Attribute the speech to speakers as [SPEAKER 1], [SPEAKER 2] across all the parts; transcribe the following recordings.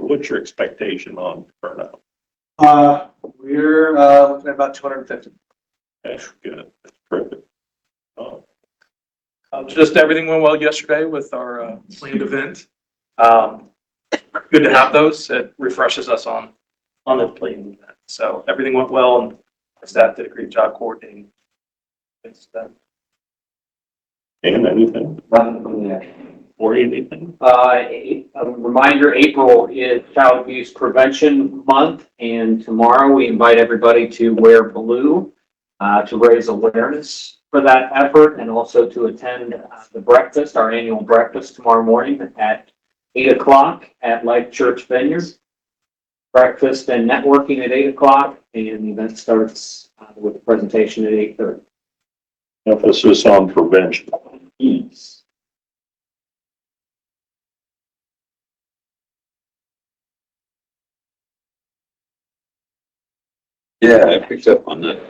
[SPEAKER 1] what's your expectation on turnout?
[SPEAKER 2] Uh, we're, uh, looking at about two hundred and fifty.
[SPEAKER 1] That's good, that's perfect. Um,
[SPEAKER 2] Um, just everything went well yesterday with our, uh, planned event. Um, good to have those. It refreshes us on, on the planned event. So everything went well and our staff did a great job coordinating. It's done.
[SPEAKER 1] And anything,
[SPEAKER 3] Nothing from there.
[SPEAKER 1] or anything?
[SPEAKER 3] Uh, a a reminder, April is Child Abuse Prevention Month, and tomorrow we invite everybody to wear blue uh, to raise awareness for that effort and also to attend uh, the breakfast, our annual breakfast tomorrow morning at eight o'clock at Life Church Vineyard. Breakfast and networking at eight o'clock, and the event starts uh, with a presentation at eight thirty.
[SPEAKER 1] Emphasis on prevention.
[SPEAKER 4] Yeah, I picked up on that.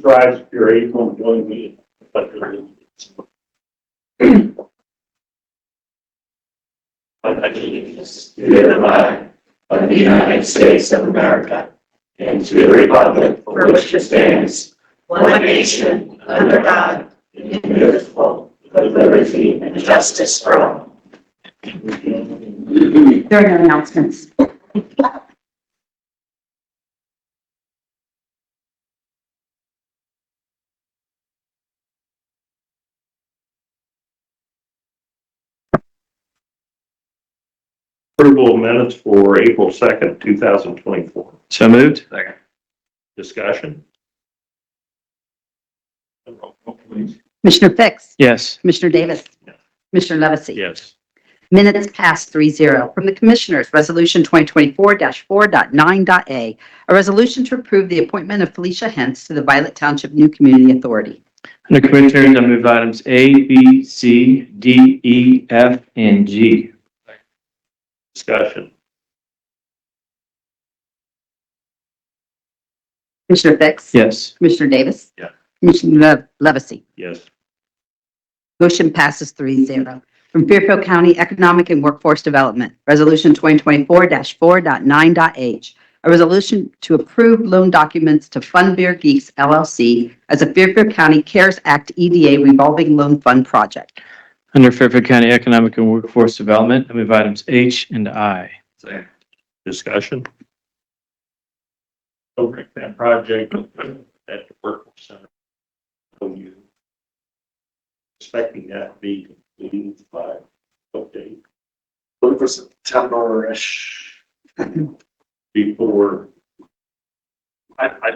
[SPEAKER 1] Drives your able to join me. but you're-
[SPEAKER 5] of the allegiance to the flag of the United States of America and to the republic for which it stands, one nation, under God, indivisible, with liberty and justice for all.
[SPEAKER 6] There are no announcements.
[SPEAKER 1] Approval of minutes for April second, two thousand twenty-four.
[SPEAKER 4] So moved?
[SPEAKER 1] Discussion? Roll call, please.
[SPEAKER 6] Commissioner Fix?
[SPEAKER 4] Yes.
[SPEAKER 6] Commissioner Davis?
[SPEAKER 1] Yes.
[SPEAKER 6] Commissioner Levesey?
[SPEAKER 1] Yes.
[SPEAKER 6] Minutes past three zero. From the Commissioners, Resolution 2024-4.9.a, a resolution to approve the appointment of Felicia Hentz to the Violet Township New Community Authority.
[SPEAKER 4] Under Commissioners, I move items A, B, C, D, E, F, and G.
[SPEAKER 1] Discussion?
[SPEAKER 6] Commissioner Fix?
[SPEAKER 4] Yes.
[SPEAKER 6] Commissioner Davis?
[SPEAKER 1] Yeah.
[SPEAKER 6] Commissioner Le- Levesey?
[SPEAKER 1] Yes.
[SPEAKER 6] Motion passes three zero. From Fairfield County Economic and Workforce Development, Resolution 2024-4.9.h, a resolution to approve loan documents to Fund Bear Geeks LLC as a Fairfield County CARES Act EDA revolving loan fund project.
[SPEAKER 4] Under Fairfield County Economic and Workforce Development, I move items H and I.
[SPEAKER 1] Discussion? Over that project at the workforce center. So you expecting that to be completed by what date
[SPEAKER 2] Looking for September-ish.
[SPEAKER 1] before?
[SPEAKER 2] I, I,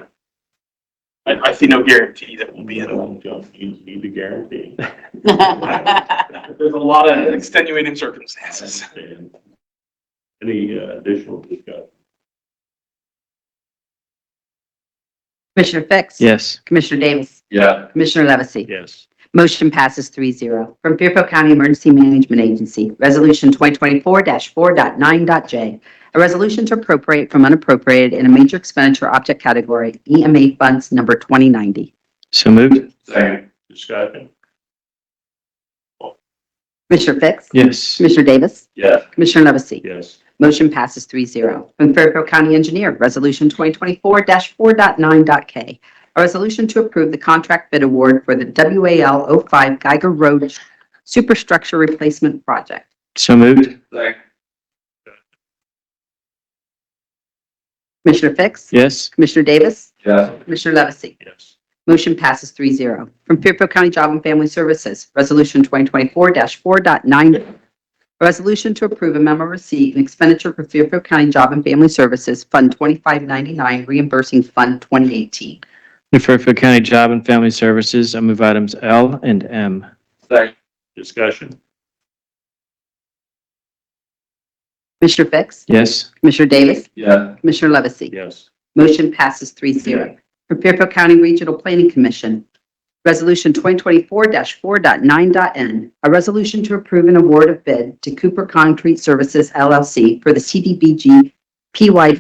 [SPEAKER 2] I, I see no guarantee that we'll be in.
[SPEAKER 1] You need to guarantee.
[SPEAKER 2] There's a lot of extenuating circumstances.
[SPEAKER 1] Any uh, additional discussion?
[SPEAKER 6] Commissioner Fix?
[SPEAKER 4] Yes.
[SPEAKER 6] Commissioner Davis?
[SPEAKER 4] Yeah.
[SPEAKER 6] Commissioner Levesey?
[SPEAKER 1] Yes.
[SPEAKER 6] Motion passes three zero. From Fairfield County Emergency Management Agency, Resolution 2024-4.9.j, a resolution to appropriate from unappropriated in a major expenditure object category, EMA funds number 2090.
[SPEAKER 4] So moved?
[SPEAKER 1] Discussion?
[SPEAKER 6] Commissioner Fix?
[SPEAKER 4] Yes.
[SPEAKER 6] Commissioner Davis?
[SPEAKER 1] Yes.
[SPEAKER 6] Commissioner Levesey?
[SPEAKER 1] Yes.
[SPEAKER 6] Motion passes three zero. From Fairfield County Engineer, Resolution 2024-4.9.k, a resolution to approve the contract bid award for the WAL 05 Geiger Road Superstructure Replacement Project.
[SPEAKER 4] So moved?
[SPEAKER 6] Commissioner Fix?
[SPEAKER 4] Yes.
[SPEAKER 6] Commissioner Davis?
[SPEAKER 4] Yeah.
[SPEAKER 6] Commissioner Levesey?
[SPEAKER 1] Yes.
[SPEAKER 6] Motion passes three zero. From Fairfield County Job and Family Services, Resolution 2024-4.9, a resolution to approve a memo receipt and expenditure for Fairfield County Job and Family Services, Fund 2599, reimbursing Fund 2018.
[SPEAKER 4] Under Fairfield County Job and Family Services, I move items L and M.
[SPEAKER 1] Discussion?
[SPEAKER 6] Commissioner Fix?
[SPEAKER 4] Yes.
[SPEAKER 6] Commissioner Davis?
[SPEAKER 4] Yeah.
[SPEAKER 6] Commissioner Levesey?
[SPEAKER 1] Yes.
[SPEAKER 6] Motion passes three zero. From Fairfield County Regional Planning Commission, Resolution 2024-4.9.n, a resolution to approve an award of bid to Cooper Concrete Services LLC for the CDBG PY